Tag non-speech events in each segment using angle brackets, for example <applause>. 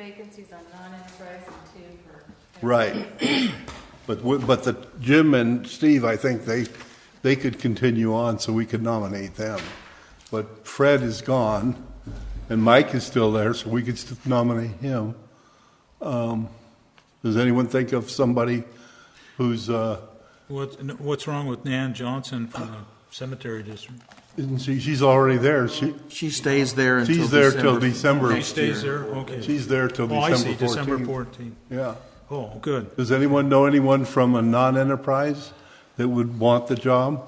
vacancies on non-enterprise and two for. Right. But, we- but the, Jim and Steve, I think they, they could continue on, so we could nominate them. But Fred is gone, and Mike is still there, so we could st- nominate him. Um, Does anyone think of somebody who's, uh, What, what's wrong with Nan Johnson from the cemetery district? isn't she, she's already there, she, She stays there until she's there till December. December. She stays there, okay. She's there till Oh, I see, December December 14th. fourteenth. Yeah. Oh, good. Does anyone know anyone from a non-enterprise that would want the job?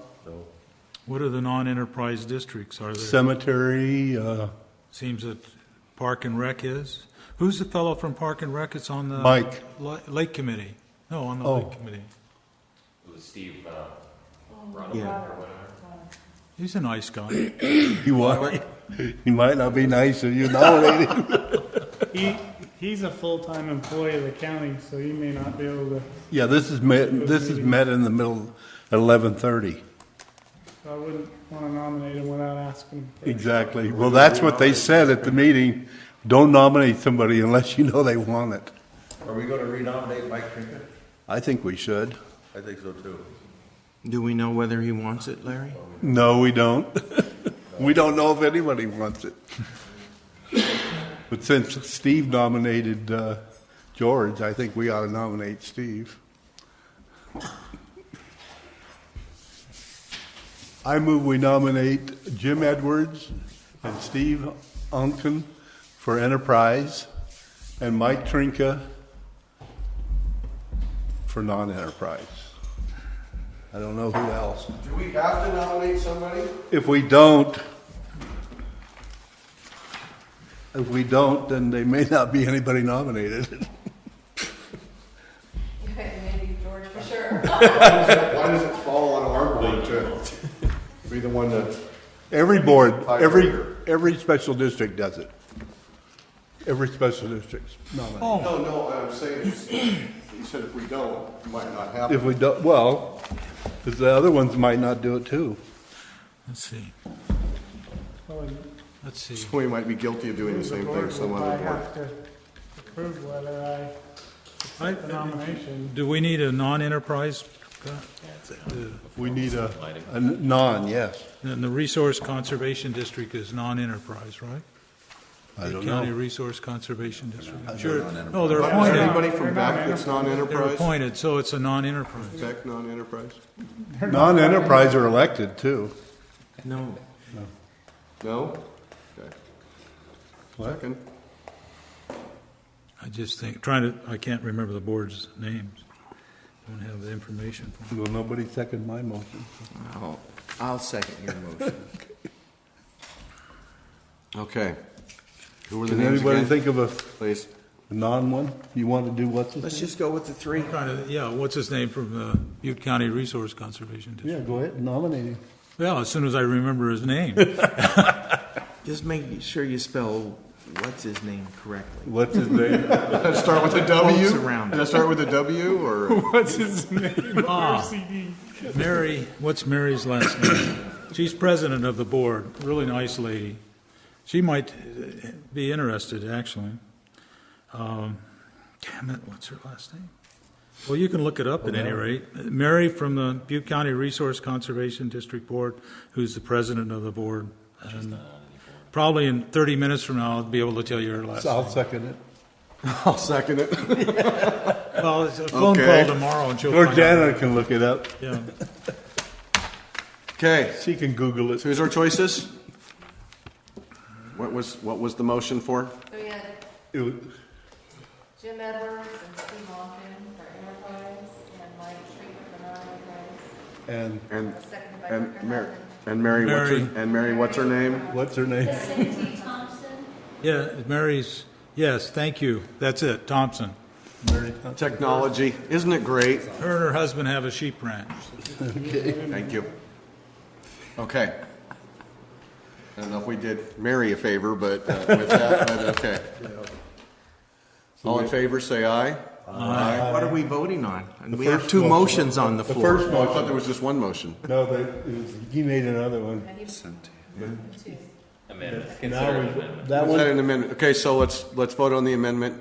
What are the non-enterprise districts? Are there, Cemetery, uh, <laughs> seems that Park and Rec is? Who's the fellow from Park and Rec that's on the? Mike. Li- Lake Committee? No, on the Oh. Lake Committee. He's a nice guy. He was. <laughs> He might not be nice if you nominate him. He, he's a full-time employee of the county, so he may not be able to, Yeah, this is met, this is met in the middle at eleven thirty. I wouldn't want to nominate him without asking. first. Exactly. Well, that's what they said at the meeting. Don't nominate somebody unless you know they want it. Are we gonna renominate Mike Trinket? I think we should. I think so too. Do we know whether he wants it, Larry? No, we don't. <laughs> We don't know if anybody wants it. But since Steve nominated, uh, George, I think we ought to nominate Steve. I move we nominate Jim Edwards and Steve Unken for Enterprise and Mike Trinka for non-enterprise. I don't know who else. Do we have to nominate somebody? If we don't, if we don't, then they may not be anybody nominated. <laughs> Maybe George for sure. Why does it fall on our board to <laughs> be the one that? Every board, every, every special district does it. Every special district nominates. Oh, No, no, I'm saying, is- he said if we don't, it might not happen. If we don't, well, 'cause the other ones might not do it too. let's see, So let's see. We might be guilty of doing the The same board thing some will other probably board. have to approve whether I I- accept the nomination. Do we need a non-enterprise? uh, We need a, a non, yes. And the Resource Conservation District is non-enterprise, right? I don't County know. Resource Conservation District. Sure, no, they're Is appointed, anybody from back that's they're non-enterprise? appointed, so it's a non-enterprise. Back non-enterprise? Non-enterprise are elected too. No. No? Okay. What? Second. I just think, trying to, I can't remember the board's names. Don't have the information for Well, nobody second my motion. I'll, I'll second your <laughs> motion. Okay. Who were the Can names anybody again? think of a Please. <laughs> non one? You want to do what's his Let's just go with the three. Trying to, yeah, what's his name from the Butte County Resource Conservation District? Yeah, go ahead and nominate him. Well, as soon as I remember his name. Just make sure you spell what's his name correctly. What's his name? Let's start with a W? Quotes around. Did I start with a W <laughs> or? What's his name? Ah. RCD. Mary, what's Mary's last name? She's president of the board, really nice lady. She might uh, be interested, actually. Um, Damn it, what's her last name? Well, you can look it up at any rate. Mary from the Butte County Resource Conservation District Board, who's the president of the board. And Probably in 30 minutes from now, I'll be able to tell you her last name. I'll second it. I'll second it. Well, it's a phone call Okay. tomorrow and she'll Or find out. Jana can look it up. Yeah. Okay. She can Google it. So here's our choices. What was, what was the motion for? So we had It was- Jim Edwards and Steve Malkin for enterprise and Mike Treat for non-enterprise. And And, Seconded by and Rick Mary, Hoffman. and Mary, what's Mary. her, and Mary, what's her name? what's her name? Cindy Thompson. Yeah, Mary's, yes, thank you. That's it, Thompson. Technology. Isn't it great? Her and her husband have a sheep ranch. Thank you. Okay. I don't know if we did Mary a favor, but uh, with that, <laughs> but okay. All in favor, say aye. Aye. What are we voting on? And we first have two motion. motions on the The floor. first Oh, I thought there was just one motion. No, they, it was, he made another one. And he was two. Now we- That Is one, that an amendment? Okay, so let's, let's vote on the amendment.